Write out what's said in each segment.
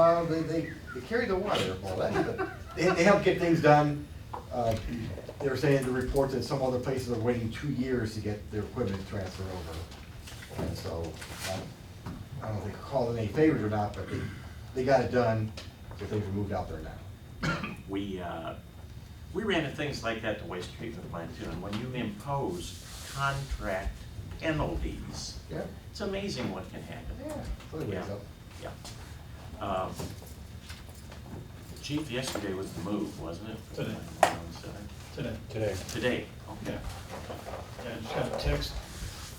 know, they, they, they carry the water, well, that's, the- they, they help get things done. Uh, They were saying the reports that some other places are waiting two years to get their equipment transferred over. And so, um, I don't know if they called it any favors or not, but they, they got it done, so things are moved out there now. We, uh, we ran into things like that at the waste treatment plant too, and when you impose contract penalties, Yeah, it's amazing what can happen. yeah, so it weighs up. Yeah. Um, Chief, yesterday was the move, wasn't it? Today. today. today. Today, Yeah, okay. yeah, I just got a text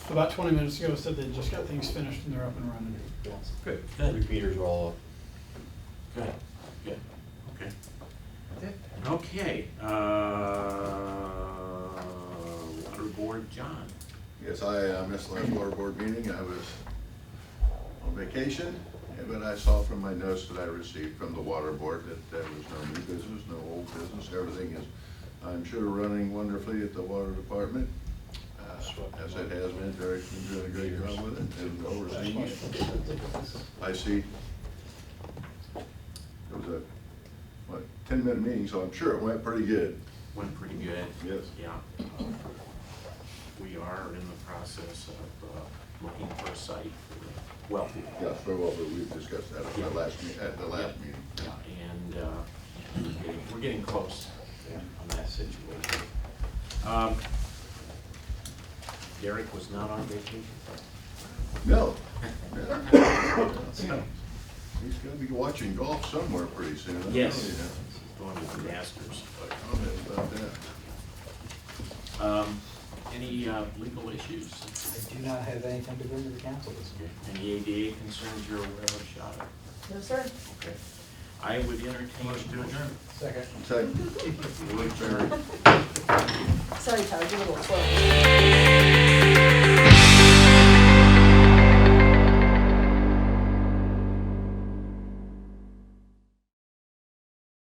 about twenty minutes ago, said they just got things finished and they're up and running. Good. Good. Repeaters are all up. Good, good, okay. Okay, uh, Water Board John. Yes, I uh, missed the last water board meeting, I was on vacation, eh, but I saw from my notes that I received from the water board that there was no new business, no old business, everything is, I'm sure, running wonderfully at the water department, uh, as it has been, Derek's been doing a great job with it, and overseeing it. I see, it was a, what, ten-minute meeting, so I'm sure it went pretty good, Went pretty good. yes. Yeah. um, We are in the process of uh, looking for a site for Wellfield. Yes, very well, but we've discussed that at the last, me- at the last meeting. And uh, we're getting- we're getting close on that situation. Um, Derek was not on vacation. No. He's gonna be watching golf somewhere pretty soon. I don't Yes. know He's going to the Masters. yet. I don't know about that. Um, Any uh, legal issues? I do not have anything to bring to the council this year. Any ADA concerns you're aware of, Shada? No, sir. Okay. I would entertain. Motion to adjourn. Second. Second. adjourn. Sorry, Todd, you're a little slow.